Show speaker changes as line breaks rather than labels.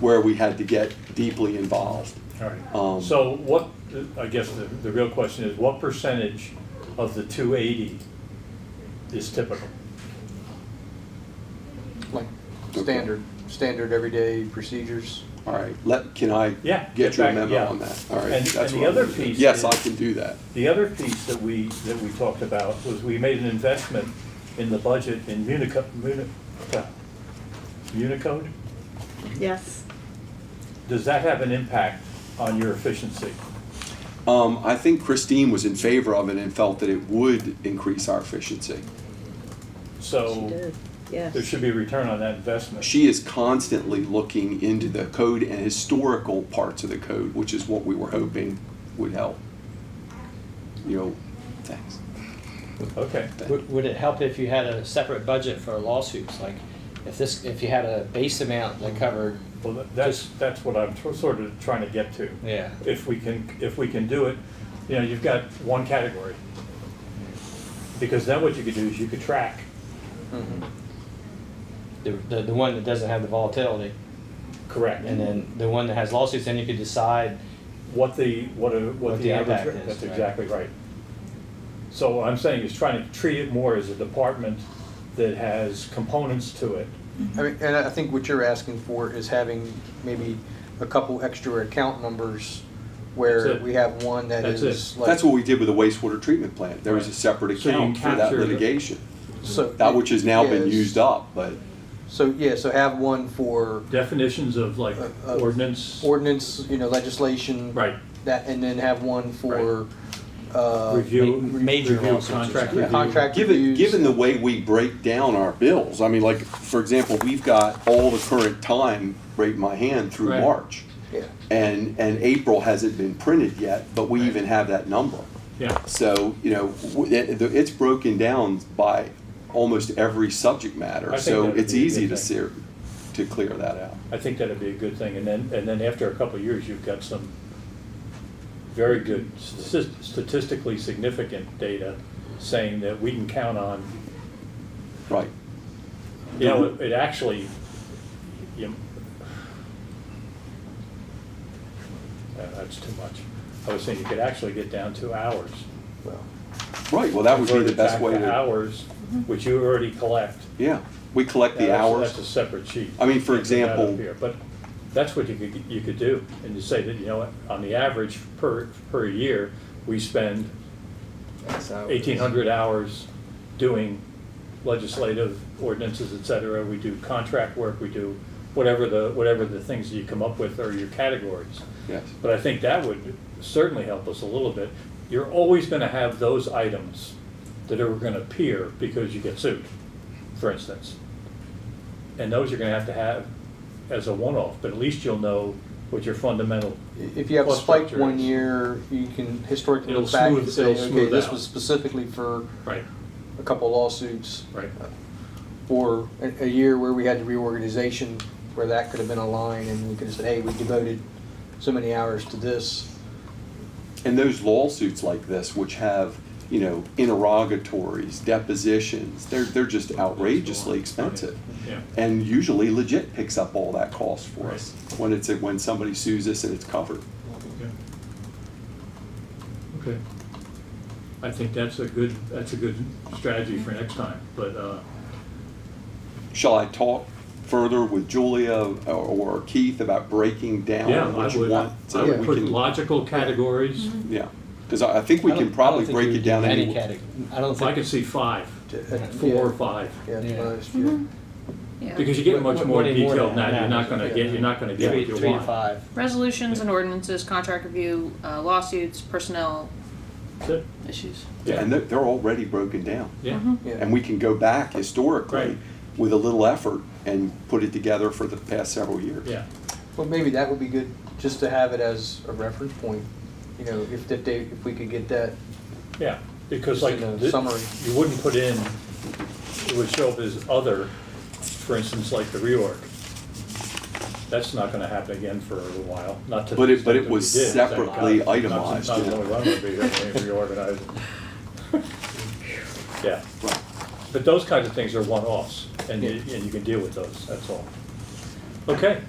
where we had to get deeply involved.
All right.
Um,
So what, I guess the, the real question is, what percentage of the two eighty is typical?
like standard, standard everyday procedures.
All right, let, can I
Yeah,
get
get
your
back- yeah.
memo on that? All right.
And-
that's
and the
what I'm
other
gonna do.
piece
Yes,
is-
I can do that.
The other piece that we, that we talked about was we made an investment in the budget in Munico, Muni- uh, Unicode?
Yes.
Does that have an impact on your efficiency?
Um, I think Christine was in favor of it and felt that it would increase our efficiency.
She
So
did, yes.
there should be a return on that investment.
She is constantly looking into the code and historical parts of the code, which is what we were hoping would help. You know, thanks.
Okay,
Would, would it help if you had a separate budget for lawsuits? Like, if this, if you had a base amount that covered,
well, tha- that's, that's what I'm tr- sort of trying to get to.
yeah.
if we can, if we can do it, you know, you've got one category. Because then what you could do is you could track,
The, the, the one that doesn't have the volatility,
correct,
and then the one that has lawsuits, then you could decide,
what the, what a,
What
what the
the
average,
impact
rate-
is,
that's
right.
exactly right. So what I'm saying is trying to treat it more as a department that has components to it.
I mean, and I think what you're asking for is having maybe a couple extra account numbers where
That's it.
we have one that
That's
is like.
That's what we did with the wastewater treatment plant. There was a
Right.
separate
So you
account for that
capture the-
litigation.
so-
That which has now been
Yes.
used up, but
So, yeah, so have one for
Definitions of like
Uh, uh,
ordinance,
ordinance, you know, legislation.
right,
That, and then have one for, uh.
review.
Ma- major
review,
lawsuits or
Contract
something.
review.
Contract
Given,
reviews.
given the way we break down our bills, I mean, like, for example, we've got all the current time right in my hand through
Right.
March.
Yeah.
And, and April hasn't been printed yet, but we even have that number.
Yeah,
So, you know, w- it, it's broken down by almost every subject
I
matter,
think
so
that would
it's
be a
easy
good
to
thing.
ser, to clear that out.
I think that'd be a good thing, and then, and then after a couple of years, you've got some very good statis- statistically significant data saying that we can count on,
Right,
you know, it- it actually, you know, uh, that's too much. I was saying you could actually get down to hours.
well,
right, well, that would be
Convert
the
it
best
back
way to,
Hours, which you already collect.
yeah, we collect the
Now, that's-
hours.
That's a separate sheet.
I mean, for
Can't get that up
example-
here, But that's what you could, you could do, and you say that, you know, what, on the average per, per year, we spend
that's how it is.
eighteen hundred hours doing legislative ordinances, et cetera, we do contract work, we do whatever the, whatever the things that you come up with are your categories.
Yes,
But I think that would certainly help us a little bit. You're always gonna have those items that are gonna appear because you get sued, for instance. And those you're gonna have to have as a one-off, but at least you'll know what your fundamental,
If you have a
Plus
spike
structure
one
is-
year, you can historically
It'll
look back and
smooth-
say,
it'll
okay,
smooth
this
out.
was specifically for
right,
a couple lawsuits.
right.
Or a, a year where we had the reorganization, where that could have been a line and we could have said, hey, we devoted so many hours to this.
and those lawsuits like this, which have, you know, interrogatories, depositions, they're, they're just outrageously expensive.
Yeah.
And usually legit picks up all that cost for
Right.
us, when it's, when somebody sues us and it's covered.
Okay. I think that's a good, that's a good strategy for next time, but, uh,
Shall I talk further with Julia or Keith about breaking
yeah,
down
I
what you
would,
want?
I
so
would
we
put
can-
logical categories.
Yeah, because I, I think we
I don't-
can probably
I don't think
break
we
it
would
down
do
any.
Any category, I don't
If I could
think.
see five,
to- uh,
four or five,
Yeah,
Yeah.
yeah, most, yeah.
because you get
What-
much
what-
more
what do you
detail
want
than
now?
that, you're not gonna get,
Yeah.
you're not gonna get
Three,
what you
three to
want.
five.
Resolutions and ordinances, contract review, uh, lawsuits, personnel
That's it.
issues.
Yeah.
And they're, they're already broken down.
Mm-hmm.
Yeah,
And we can go back historically
Right.
with a little effort and put it together for the past several years.
yeah,
Well, maybe that would be good, just to have it as a reference point, you know, if, if they, if we could get that,
yeah, because
Just
like,
in a
thi-
summary.
you wouldn't put in, it would show up as other, for instance, like the reorg. That's not gonna happen again for a little while, not to. the
But it- but
extent
it
that we
was
did. Thank God.
separately
Not since-
itemized,
Not since
yeah.
only one would be here when we reorganized. Yeah,
Right.
but those kinds of things are one-offs, and you, and you can deal with those, that's all. Okay,